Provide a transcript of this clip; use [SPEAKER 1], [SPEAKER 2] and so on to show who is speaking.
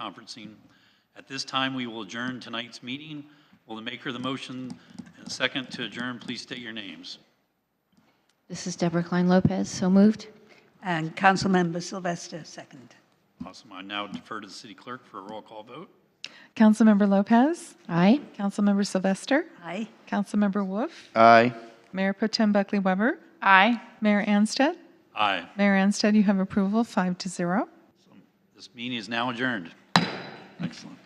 [SPEAKER 1] conferencing. At this time, we will adjourn tonight's meeting. Will the maker of the motion and second to adjourn, please state your names.
[SPEAKER 2] This is Deborah Klein Lopez, so moved.
[SPEAKER 3] And Councilmember Sylvester, second.
[SPEAKER 1] Awesome. I now defer to the city clerk for a roll call vote.
[SPEAKER 4] Councilmember Lopez,
[SPEAKER 2] Aye.
[SPEAKER 4] Councilmember Sylvester,
[SPEAKER 3] Aye.
[SPEAKER 4] Councilmember Wolf,
[SPEAKER 5] Aye.
[SPEAKER 4] Mayor Pro Tem Buckley Weber. Aye. Mayor Anstead.
[SPEAKER 1] Aye.
[SPEAKER 4] Mayor Anstead, you have approval, five to zero.
[SPEAKER 1] This meeting is now adjourned. Excellent.